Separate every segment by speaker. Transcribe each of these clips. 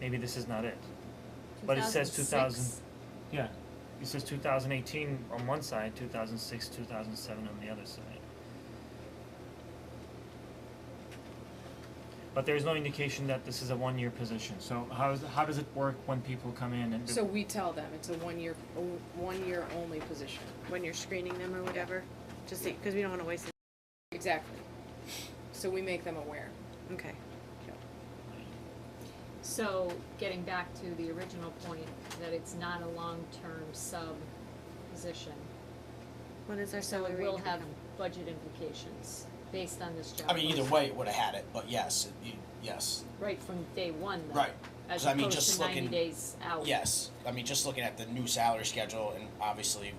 Speaker 1: maybe this is not it. But it says
Speaker 2: 2006.
Speaker 1: Yeah. It says two thousand eighteen on one side, two thousand six, two thousand seven on the other side. But there is no indication that this is a one-year position, so how is, how does it work when people come in and?
Speaker 2: So we tell them it's a one-year, o- one-year only position,
Speaker 3: when you're screening them or whatever, just see, because we don't want to waste it.
Speaker 2: exactly. So we make them aware.
Speaker 3: Okay.
Speaker 4: So, getting back to the original point, that it's not a long-term sub position.
Speaker 3: What is our
Speaker 4: So
Speaker 3: salary?
Speaker 4: it will
Speaker 3: income?
Speaker 4: have budget implications based on this job.
Speaker 5: I mean, either
Speaker 4: posting.
Speaker 5: way, it would have had it, but yes, it- you, yes,
Speaker 4: Right from day one though.
Speaker 5: Right.
Speaker 4: As
Speaker 5: 'Cause I mean,
Speaker 4: opposed
Speaker 5: just
Speaker 4: to ninety
Speaker 5: looking-
Speaker 4: days
Speaker 3: Oh.
Speaker 4: out.
Speaker 5: yes. I mean, just looking at the new salary schedule, and obviously,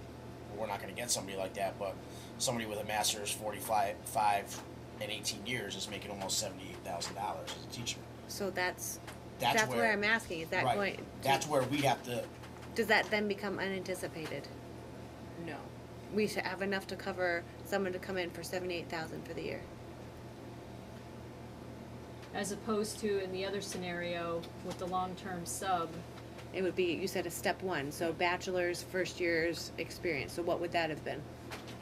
Speaker 5: we're not going to get somebody like that, but somebody with a master's, forty-five, five, and eighteen years is making almost seventy-eight thousand dollars as a teacher.
Speaker 3: So that's,
Speaker 5: That's,
Speaker 3: that's where I'm asking, is that
Speaker 5: right,
Speaker 3: going?
Speaker 5: That's where we have to.
Speaker 3: Does that then become unanticipated?
Speaker 2: No.
Speaker 3: We should have enough to cover someone to come in for seventy-eight thousand for the year.
Speaker 4: As opposed to in the other scenario with the long-term sub,
Speaker 3: It would be, you said a step one, so bachelor's, first year's experience, so what would that have been?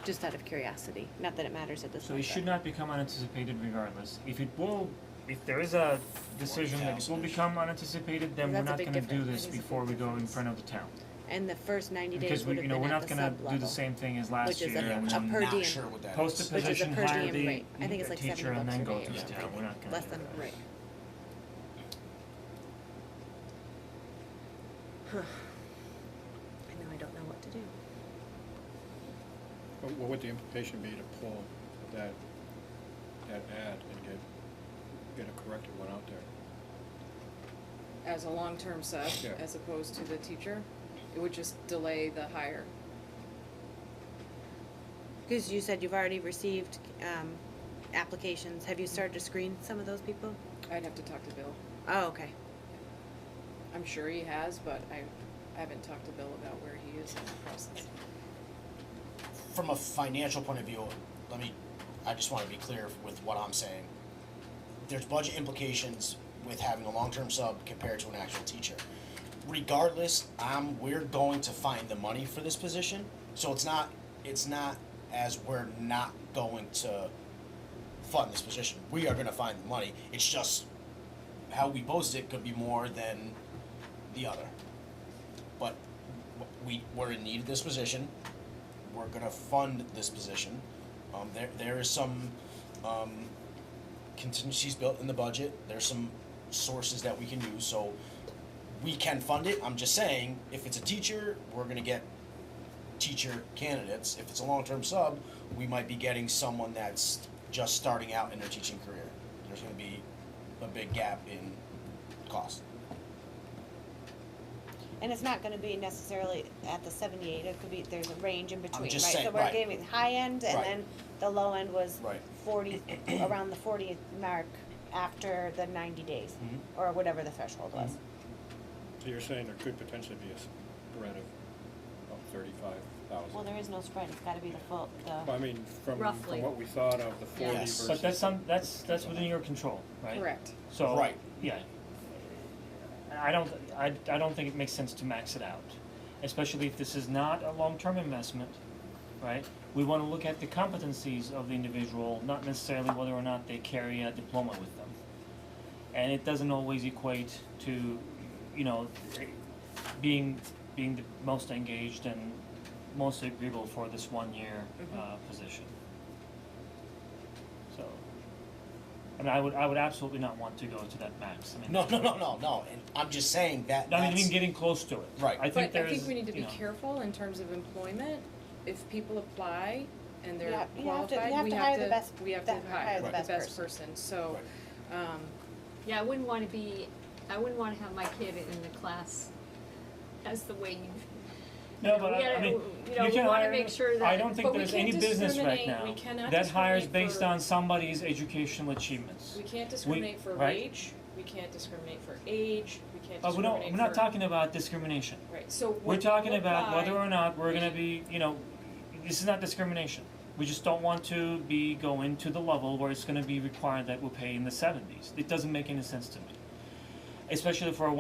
Speaker 3: Just out of curiosity, not that it matters at this
Speaker 1: So
Speaker 3: point.
Speaker 1: it should not become unanticipated regardless, if it will, if there is a decision that it will
Speaker 5: 40,000-ish.
Speaker 1: become unanticipated, then we're
Speaker 3: That's a
Speaker 1: not
Speaker 3: big
Speaker 1: gonna do
Speaker 3: difference. That
Speaker 1: this
Speaker 3: is a big
Speaker 1: before we go in
Speaker 3: difference.
Speaker 1: front of the town.
Speaker 3: And the first ninety days
Speaker 1: Because we,
Speaker 3: would have
Speaker 1: you know,
Speaker 3: been
Speaker 1: we're
Speaker 3: at
Speaker 1: not
Speaker 3: the
Speaker 1: gonna
Speaker 3: sub
Speaker 1: do the
Speaker 3: level,
Speaker 1: same thing as last
Speaker 3: which is
Speaker 1: year,
Speaker 3: a-
Speaker 1: and
Speaker 5: which
Speaker 3: a
Speaker 5: I'm
Speaker 3: per
Speaker 5: not
Speaker 3: diem.
Speaker 5: sure what that
Speaker 1: post
Speaker 5: is.
Speaker 1: a
Speaker 3: Which is a
Speaker 1: position,
Speaker 3: per
Speaker 1: hire
Speaker 3: diem
Speaker 1: the
Speaker 3: rate. I think
Speaker 1: the
Speaker 3: it's like seventy
Speaker 1: teacher, and
Speaker 3: bucks
Speaker 1: then
Speaker 3: a
Speaker 1: go
Speaker 3: day
Speaker 1: to
Speaker 3: or
Speaker 1: the
Speaker 3: something.
Speaker 1: town, we're not gonna
Speaker 3: less
Speaker 1: do
Speaker 3: than,
Speaker 1: that.
Speaker 3: right. I know, I don't know what to do.
Speaker 6: What what would the implication be to pull that, that ad and get, get a corrected one out there?
Speaker 2: As a long-term sub,
Speaker 6: Yeah.
Speaker 2: as opposed to the teacher, it would just delay the hire.
Speaker 3: Because you said you've already received um, applications. Have you started to screen some of those people?
Speaker 2: I'd have to talk to Bill.
Speaker 3: Oh, okay.
Speaker 2: I'm sure he has, but I, I haven't talked to Bill about where he is in the process.
Speaker 5: From a financial point of view, let me. I just want to be clear with what I'm saying. There's budget implications with having a long-term sub compared to an actual teacher. Regardless, I'm we're going to find the money for this position, so it's not it's not as we're not going to fund this position. We are going to find the money. It's just how we post it could be more than the other. But w- we we're in need of this position. We're gonna fund this position. Um, there there is some um, contingencies built in the budget. There's some sources that we can use, so we can fund it. I'm just saying, if it's a teacher, we're gonna get teacher candidates. If it's a long-term sub, we might be getting someone that's just starting out in their teaching career. There's gonna be a big gap in cost.
Speaker 3: And it's not going to be necessarily at the 78. It could be there's a range in between,
Speaker 5: just
Speaker 3: right? so
Speaker 5: saying,
Speaker 3: we're
Speaker 5: right.
Speaker 3: giving high end, and
Speaker 5: Right.
Speaker 3: then the low end was
Speaker 5: Right.
Speaker 3: 40 around the 40th mark after the 90 days
Speaker 5: Mhm.
Speaker 3: or whatever the threshold
Speaker 5: Mm-hmm.
Speaker 3: was.
Speaker 6: So you're saying there could potentially be a spread of, of thirty-five thousand?
Speaker 3: Well, there is no spread. It's got to be the full.
Speaker 6: I
Speaker 3: The,
Speaker 6: mean, from,
Speaker 4: Roughly.
Speaker 6: from what we thought of the forty
Speaker 4: Yes.
Speaker 6: versus.
Speaker 1: But that's some, that's, that's within your control, right?
Speaker 2: Correct.
Speaker 1: So.
Speaker 5: Right.
Speaker 1: Yeah. I don't, I, I don't think it makes sense to max it out, especially if this is not a long-term investment, right? We wanna look at the competencies of the individual, not necessarily whether or not they carry a diploma with them. And it doesn't always equate to, you know, being, being the most engaged and most agreeable for this one-year,
Speaker 5: Mm-hmm.
Speaker 1: uh, position. So, I mean, I would, I would absolutely not want to go to that max, I mean.
Speaker 5: No, no, no, no, no. And I'm just saying that.
Speaker 1: Not
Speaker 5: that's-
Speaker 1: even getting close to it.
Speaker 5: Right.
Speaker 1: I think
Speaker 2: But I
Speaker 1: there's,
Speaker 2: think we need to
Speaker 1: you
Speaker 2: be
Speaker 1: know,
Speaker 2: careful in terms of employment. If people apply and
Speaker 3: You
Speaker 2: they're
Speaker 3: have- you have to- you
Speaker 2: qualified,
Speaker 3: have
Speaker 2: we
Speaker 3: to
Speaker 2: have
Speaker 3: hire the
Speaker 2: to,
Speaker 3: best-
Speaker 2: we have to
Speaker 3: the-
Speaker 2: hire
Speaker 3: hire
Speaker 2: the
Speaker 3: the
Speaker 2: best person, so.
Speaker 3: best person.
Speaker 5: Right.
Speaker 2: Um,
Speaker 4: yeah, I wouldn't wanna be, I wouldn't wanna have my kid in the class as the way you
Speaker 1: No,
Speaker 4: know,
Speaker 1: but
Speaker 4: we
Speaker 1: I, I
Speaker 4: gotta-
Speaker 1: mean,
Speaker 4: you
Speaker 1: you
Speaker 4: know, we
Speaker 1: can
Speaker 4: wanna
Speaker 1: hire,
Speaker 4: make sure
Speaker 1: I
Speaker 4: that-
Speaker 1: don't think
Speaker 2: but we
Speaker 1: there's
Speaker 2: can't
Speaker 1: any business right
Speaker 2: discriminate.
Speaker 1: now.
Speaker 2: We cannot
Speaker 1: That hires
Speaker 2: discriminate
Speaker 1: based
Speaker 2: for-
Speaker 1: on somebody's educational
Speaker 2: we
Speaker 1: achievements.
Speaker 2: can't discriminate for
Speaker 1: right.
Speaker 2: wage, we can't discriminate for age, we can't discriminate for.
Speaker 1: But we don't, we're not talking about discrimination.
Speaker 2: Right, so
Speaker 1: We're
Speaker 2: what-
Speaker 1: talking
Speaker 2: what
Speaker 1: about
Speaker 2: why-
Speaker 1: whether or not we're gonna
Speaker 2: we-
Speaker 1: be, you know, this is not discrimination. We just don't want to be going to the level where it's gonna be required that we're paying the seventies. It doesn't make any sense to me. Especially for a